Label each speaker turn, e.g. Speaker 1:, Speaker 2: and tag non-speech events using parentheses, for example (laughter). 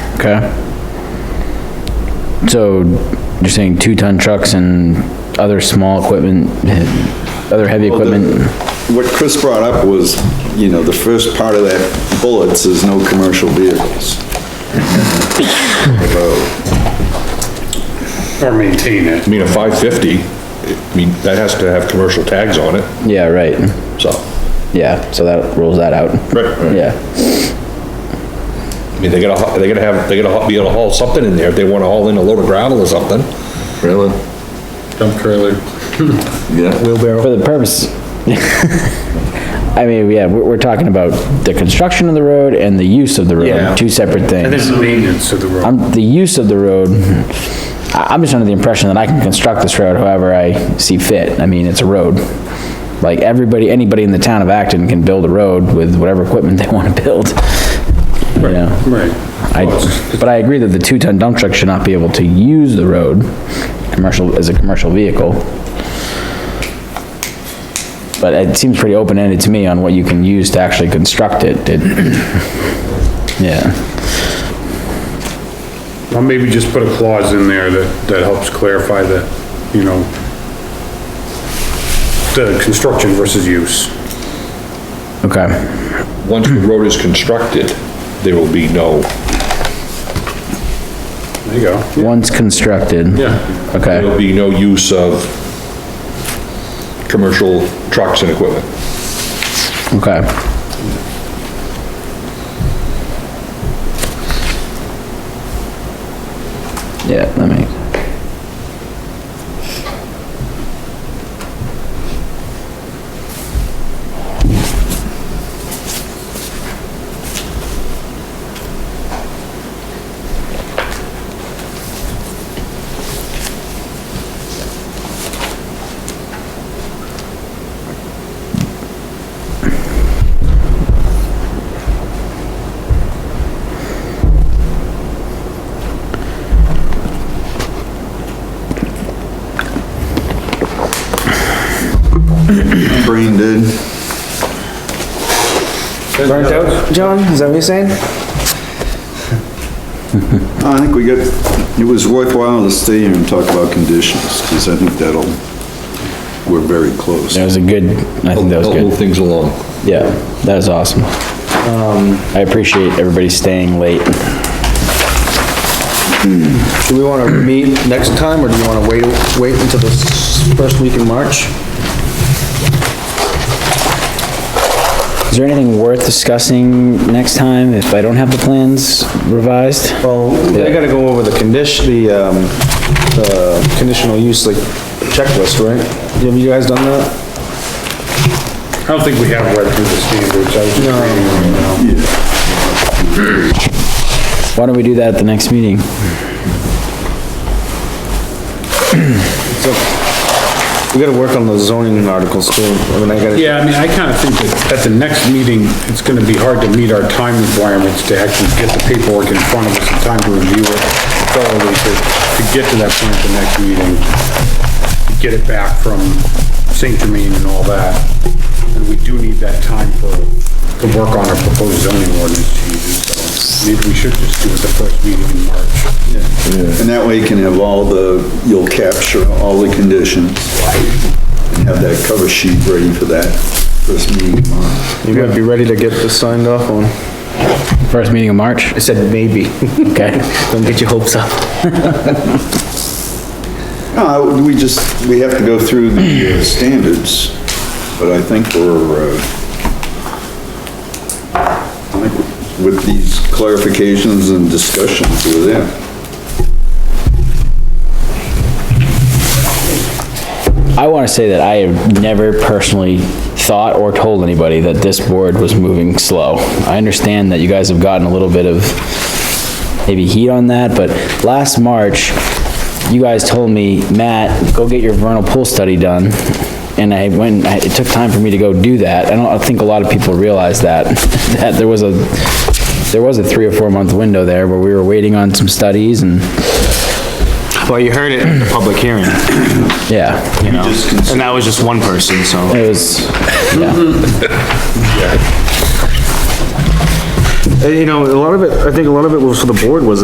Speaker 1: Okay. So you're saying two-ton trucks and other small equipment, eh, other heavy
Speaker 2: Well, the-
Speaker 1: equipment?
Speaker 2: What Chris brought up was, you know, the first part of that bullet says no commercial vehicles.
Speaker 3: or maintain it.
Speaker 4: I mean, a 550, I mean, that has to have commercial tags on it,
Speaker 1: Yeah, right.
Speaker 4: so.
Speaker 1: Yeah, so that rules that out.
Speaker 4: Right.
Speaker 1: Yeah,
Speaker 4: I mean, they gotta, they gotta have, they gotta be able to haul something in there if they wanna haul in a load of gravel or something.
Speaker 2: Really?
Speaker 3: Dump trailer.
Speaker 2: (laughs) Yeah.
Speaker 4: Wheelbarrow.
Speaker 1: for the purpose. (laughs) I mean, yeah, we're, we're talking about the construction of the road and the use of the
Speaker 4: Yeah.
Speaker 1: road, two separate
Speaker 3: And
Speaker 1: things.
Speaker 3: then maintenance of the road.
Speaker 1: I'm, the use of the road, I, I'm just under the impression that I can construct this road however I see fit. I mean, it's a road. Like, everybody, anybody in the town of Acton can build a road with whatever equipment they (laughs) wanna build. You know?
Speaker 3: Right.
Speaker 1: I, but I agree that the two-ton dump truck should not be able to use the road, commercial, as a commercial vehicle. But it seems pretty open-ended to me on what you can use to actually construct it. (clears throat) It- Yeah,
Speaker 3: Well, maybe just put a clause in there that, that helps clarify the, you know, the construction versus use.
Speaker 1: okay,
Speaker 4: Once the road is constructed, there will be no,
Speaker 3: There you go.
Speaker 1: once constructed.
Speaker 3: Yeah.
Speaker 1: Okay,
Speaker 4: there'll be no use of commercial trucks and equipment.
Speaker 1: okay. Yeah, that makes.
Speaker 2: Brain dead.
Speaker 3: Burnt out?
Speaker 5: John, is that what you're saying?
Speaker 2: I think we got, it was worthwhile to stay here and talk about conditions, because I think that'll, we're very close.
Speaker 1: That was a good, I think that was
Speaker 4: Help
Speaker 1: good.
Speaker 4: Move things along.
Speaker 1: Yeah, that was awesome. Um, I appreciate everybody staying late.
Speaker 5: Do we wanna meet next time, or do you wanna wait, wait until the s- first week in March?
Speaker 1: Is there anything worth discussing next time if I don't have the plans revised?
Speaker 5: Well, I gotta go over the condition, the, um, the conditional use, like, checklist, right? Have you guys done that?
Speaker 3: I don't think we have read through the standards. I was just reading them now.
Speaker 1: Why don't we do that at the next meeting?
Speaker 5: We gotta work on the zoning articles too, I mean, I gotta,
Speaker 3: Yeah, I mean, I kinda think that at the next meeting, it's gonna be hard to meet our time requirements to actually get the paperwork in front of us in time to review it thoroughly to, to get to that point at the next meeting. Get it back from St. Germain and all that. And we do need that time for, to work on our proposed zoning ordinance changes, so maybe we should just do it the first meeting in March.
Speaker 2: And that way you can have all the, you'll capture all the conditions, and have that cover sheet ready for that first meeting tomorrow.
Speaker 5: you gotta be ready to get this signed off on.
Speaker 1: First meeting of March?
Speaker 5: I said maybe,
Speaker 1: Okay.
Speaker 5: (laughs) don't get your hopes up.
Speaker 2: No, I- we just, we have to go through the uh, standards, but I think we're, uh, I think with these clarifications and discussions, we're there.
Speaker 1: I want to say that I have never personally thought or told anybody that this board was moving slow. I understand that you guys have gotten a little bit of maybe heat on that, but last March, you guys told me, Matt, go get your vernal pool study done. And I went, I- it took time for me to go do that. I don't, I think a lot of people realize that, (laughs) that there was a, there was a three or four month window there where we were waiting on some studies and,
Speaker 5: Well, you heard it in the public hearing,
Speaker 1: yeah.
Speaker 5: you know, and that was just one person, so.
Speaker 1: It was, yeah,
Speaker 5: Uh, You know, a lot of it, I think a lot of it was for the board was